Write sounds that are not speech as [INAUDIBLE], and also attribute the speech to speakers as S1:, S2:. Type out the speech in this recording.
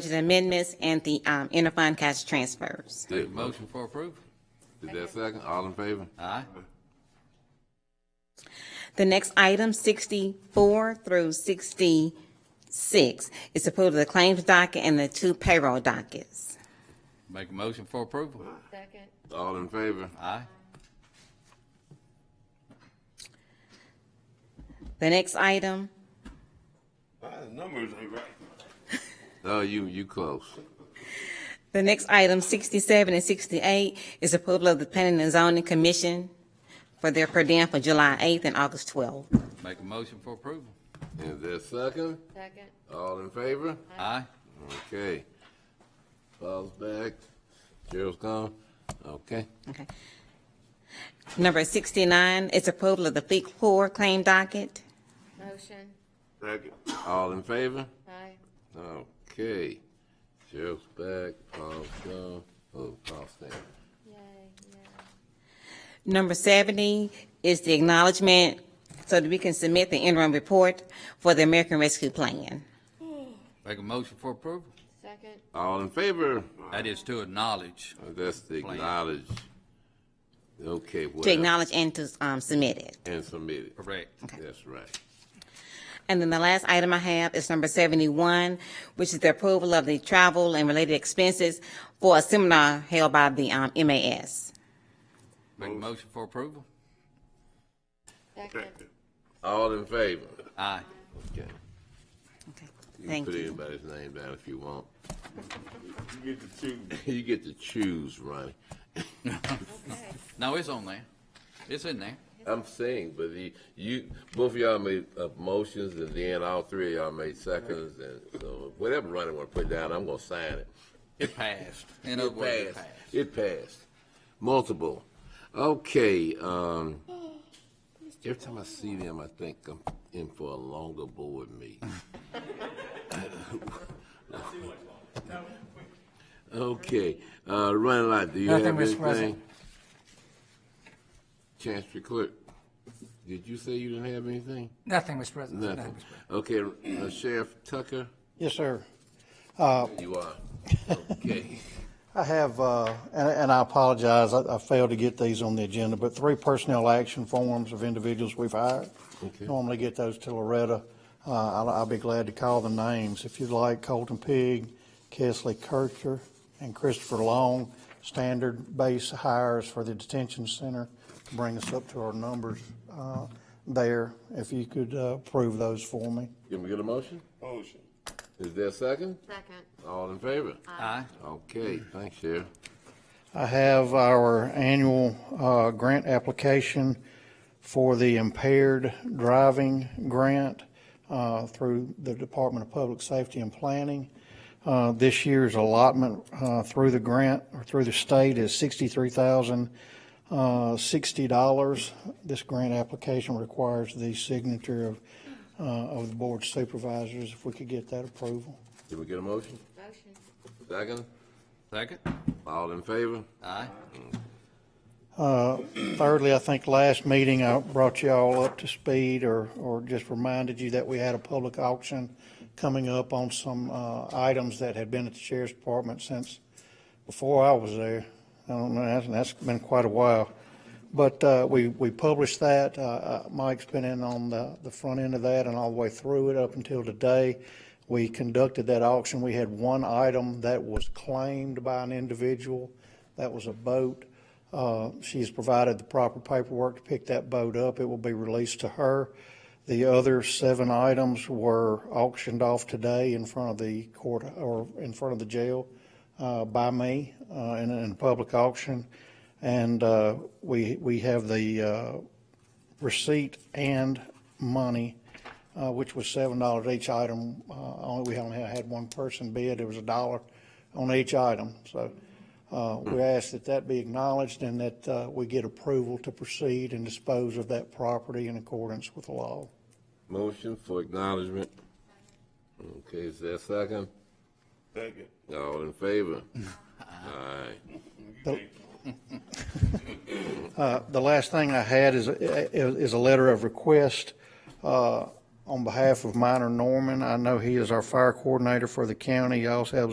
S1: budget amendments and the um, interfund cash transfers.
S2: Did
S3: Motion for approval?
S2: Is that second? All in favor?
S3: Aye.
S1: The next item, 64 through 66, is approval of the claims docket and the two payroll dockets.
S3: Make a motion for approval?
S4: Second.
S2: All in favor?
S3: Aye.
S1: The next item,
S5: Numbers ain't right.
S2: [LAUGHS] Oh, you, you close.
S1: the next item, 67 and 68, is approval of the Planning and Zoning Commission for their per diem for July 8th and August 12th.
S3: Make a motion for approval?
S2: Is that second?
S4: Second.
S2: All in favor?
S3: Aye.
S2: Okay. Paul's back. Cheryl's gone. Okay.
S1: Okay. Number 69 is approval of the Fleet Corps claim docket.
S4: Motion.
S5: Second.
S2: All in favor?
S4: Aye.
S2: Okay. Cheryl's back. Paul's gone. Oh, Paul's there.
S4: Yay, yay.
S1: Number 70 is the acknowledgement so that we can submit the interim report for the American Rescue Plan.
S3: Make a motion for approval?
S4: Second.
S2: All in favor?
S3: That is to acknowledge.
S2: That's the acknowledge. Okay, well.
S1: To acknowledge and to um, submit it.
S2: And submit it.
S3: Correct.
S2: That's right.
S1: And then the last item I have is number 71, which is the approval of the travel and related expenses for a seminar held by the um, MAS.
S3: Make a motion for approval?
S4: Second.
S5: Second.
S2: All in favor?
S3: Aye.
S2: Okay.
S1: Okay,
S2: You can
S1: Thank
S2: put
S1: you.
S2: anybody's name down if you want.
S5: You get to choose.
S2: [LAUGHS] You get to choose, Ronnie.
S4: Okay.
S3: No, it's on there. It's in there.
S2: I'm saying, but the, you, both of y'all made uh, motions, and then all three of y'all made seconds, and so whatever Ronnie want to put down, I'm gonna sign it.
S3: It passed. In other words, it passed.
S2: It passed. Multiple. Okay, um, every time I see them, I think I'm in for a longer board meeting. Okay, uh, Ronnie Lott, do you have
S6: Nothing, Mr.
S2: anything?
S6: President.
S2: Chancery Clerk, did you say you didn't have anything?
S6: Nothing, Mr. President.
S2: Nothing. Okay, uh, Sheriff Tucker,
S7: Yes, sir.
S2: you
S6: [LAUGHS]
S2: are. Okay.
S7: I have, uh, and and I apologize, I I failed to get these on the agenda, but three personnel action forms of individuals we've hired.
S2: Okay.
S7: Normally get those to Loretta. Uh, I'll I'll be glad to call the names. If you'd like, Colton Pig, Kesley Kircher, and Christopher Long, standard base hires for the detention center to bring us up to our numbers uh, there. If you could uh, approve those for me.
S2: Can we get a motion?
S5: Motion.
S2: Is there a second?
S4: Second.
S2: All in favor?
S3: Aye.
S2: Okay, thanks, Sheriff.
S7: I have our annual uh, grant application for the impaired driving grant uh, through the Department of Public Safety and Planning. Uh, This year's allotment uh, through the grant, or through the state, is $63,060. This grant application requires the signature of, uh, of the Board of Supervisors, if we could get that approval.
S2: Can we get a motion?
S4: Motion.
S2: Second?
S3: Second?
S2: All in favor?
S3: Aye.
S7: Thirdly, I think last meeting, I brought you all up to speed or, or just reminded you that we had a public auction coming up on some uh, items that had been at the sheriff's department since before I was there. I don't know, that's, that's been quite a while. But uh, we, we published that. Uh, uh, Mike's been in on the, the front end of that and all the way through it up until today. We conducted that auction. We had one item that was claimed by an individual. That was a boat. Uh, She's provided the proper paperwork to pick that boat up. It will be released to her. The other seven items were auctioned off today in front of the court, or in front of the jail uh, by me uh, in, in public auction. And uh, we, we have the uh, receipt and money, uh, which was seven dollars each item. Uh, Only, we only had one person bid, it was a dollar on each item. So uh, we ask that that be acknowledged and that uh, we get approval to proceed and dispose of that property in accordance with the law.
S2: Motion for acknowledgement. Okay, is there a second?
S5: Second.
S2: All in favor? [LAUGHS] Aye.
S7: the last thing I had is, uh, is a letter of request uh, on behalf of Minor Norman. I know he is our fire coordinator for the county. He also has